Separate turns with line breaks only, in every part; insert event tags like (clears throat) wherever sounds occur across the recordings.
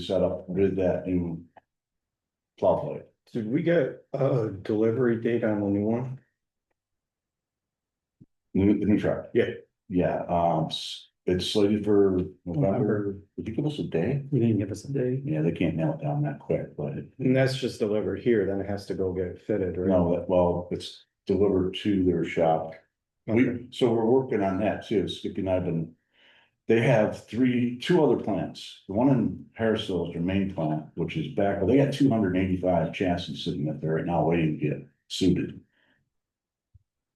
set up with that new plow blade.
Did we get a delivery date on the new one?
New, the new truck.
Yeah.
Yeah, um, s- it's slated for November,
November.
would you give us a day?
You didn't give us a date.
Yeah, they can't nail it down that quick, but it-
And that's just delivered here, then it has to go get fitted, right?
no, that, well, it's delivered to their shop.
Okay.
We, so we're working on that too, Skippy and I've been, they have three, two other plants. The one in Harrisville is their main plant, which is back, well, they got two hundred and eighty-five chassis sitting up there right now waiting to get suited.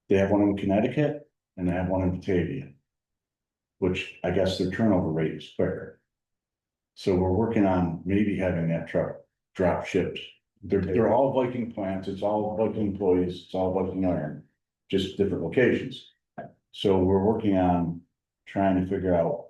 They have one in Connecticut and they have one in Batavia. Which I guess their turnover rate is quicker. So we're working on maybe having that truck drop shipped. They're, they're all Viking plants, it's all Viking employees, it's all Viking iron just different locations. So we're working on trying to figure out.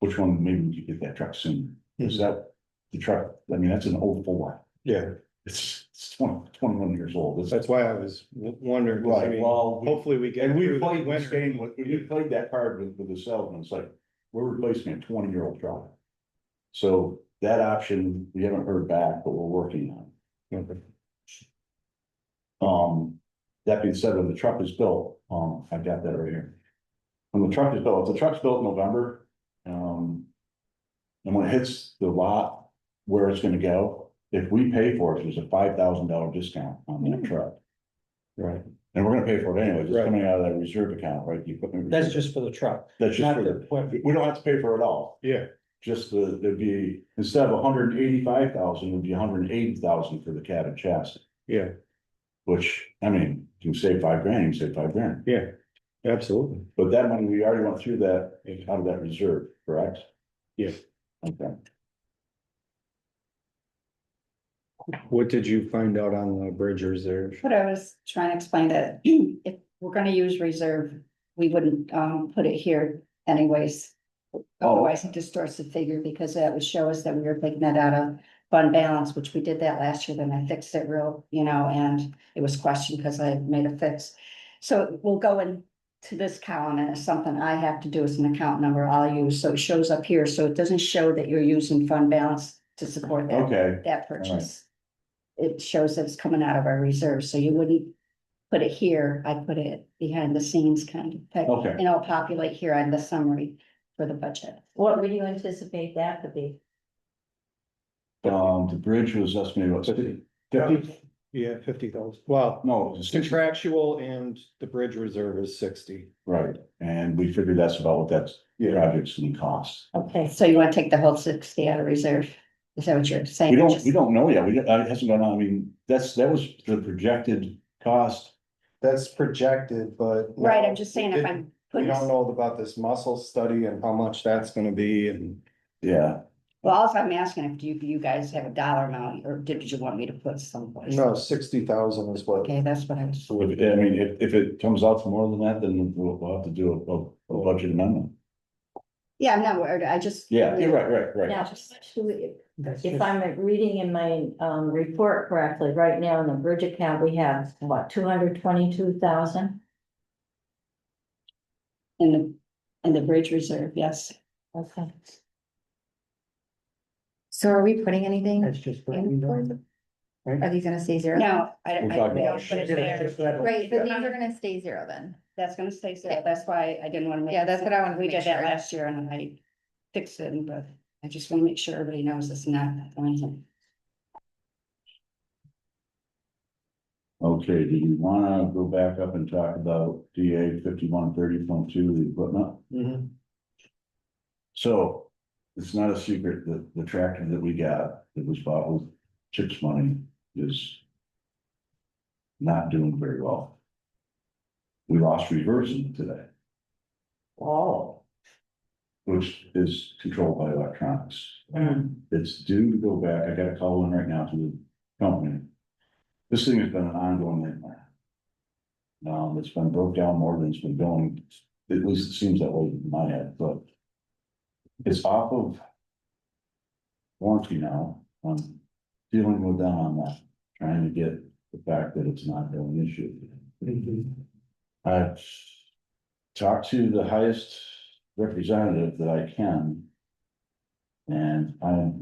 Which one, maybe we could get that truck soon, is that the truck, I mean, that's an old Ford,
Yeah,
it's, it's 20 21 years old, it's.
that's why I was w- wondering, 'cause I
Right,
mean,
well, we-
hopefully we get.
and we
through the
played this
winter.
game with, we played that card with, with the salesman, it's like, we're replacing a twenty year old truck. So that option, we haven't heard back, but we're working on it.
Okay.
Um, that being said, when the truck is built, um, I've got that right here. When the truck is built, if the truck's built in November, um. And when it hits the lot where it's gonna go, if we pay for it, there's a five thousand dollar discount on
Hmm.
that truck.
Right,
And we're gonna pay for it anyway, just
Right.
coming out of that reserve account, right? The equipment
That's
reserve.
just for the truck,
That's just
not
for
the
the,
equipment.
we don't have to pay for it all,
yeah,
just the, there'd be, instead of hundred and eighty-five thousand, it'd be hundred and eighty thousand for the cab and chassis.
yeah,
Which, I mean, you can save five grand, you can save five grand.
yeah, absolutely.
But that money, we already went through that, out of that reserve, correct?
Yeah.
Okay,
What did you find out on the bridge reserve?
What I was trying to explain that (clears throat) if we're gonna use reserve, we wouldn't um put it here anyways. Otherwise it distorts the figure because that would show us that we were taking that out of fund balance, which we did that last year, then I fixed it real, you know, and it was questioned because I made a fix. So we'll go in to this column and it's something I have to do as an account number I'll use, so it shows up here, so it doesn't show that you're using fund balance to support that
okay,
that purchase. It shows that it's coming out of our reserves, so you wouldn't put it here, I put it behind the scenes kind of thing.
Okay.
And I'll populate here on the summary for the budget.
What would you anticipate that to be?
um, the bridge was estimated what, fifty? Fifty?
Yeah, fifty thousand, well,
No, it was sixty,
contractual and the bridge reserve is sixty.
right, and we figured that's about what that's,
Yeah.
project's gonna cost.
Okay,
So you wanna take the whole sixty out of reserve, is that what you're saying?
We don't, we don't know yet, we, uh, it hasn't gone on, I mean, that's, that was the projected cost.
That's projected, but.
Right, I'm just saying if I'm
We
putting,
don't
well,
know about this muscle study and how much that's gonna be and.
Yeah,
also I'm asking if you, you guys have a dollar amount, or did you want me to put someplace?
No, sixty thousand is what,
Okay, that's what I was,
so if, I mean, if, if it comes out to more than that, then we'll, we'll have to do a, a, a budget amendment.
yeah, I'm not worried, I just.
Yeah, you're right, right, right,
now, if I'm reading in my um report correctly, right now in the bridge account, we have what, two hundred twenty-two thousand?
In the, in the bridge reserve, yes.
Okay.
So are we putting anything?
That's just.
in for them? Are these gonna stay zero?
No, I,
We're
I, we
talking
don't
about
put it there.
Right, but these are gonna stay zero then.
That's gonna stay so, that's why I didn't wanna make.
Yeah, that's what I wanted to
We
make
did that
sure.
last year and I fixed it, but I just wanna make sure everybody knows it's not anything.
okay, do you wanna go back up and talk about DA fifty-one thirty point two, the equipment?
Mm-hmm.
So it's not a secret that the tractor that we got that was bought with chips money is not doing very well. We lost reversing today,
Oh.
which is controlled by electronics.
Hmm.
It's due to go back. I got a call in right now to the company. This thing has been an ongoing nightmare. Um, it's been broke down more than it's been going, at least it seems that way in my head, but. It's off of. Warranty now, I'm dealing with them on that, trying to get the fact that it's not going issue.
Mm-hmm.
I've talked to the highest representative that I can. And I'm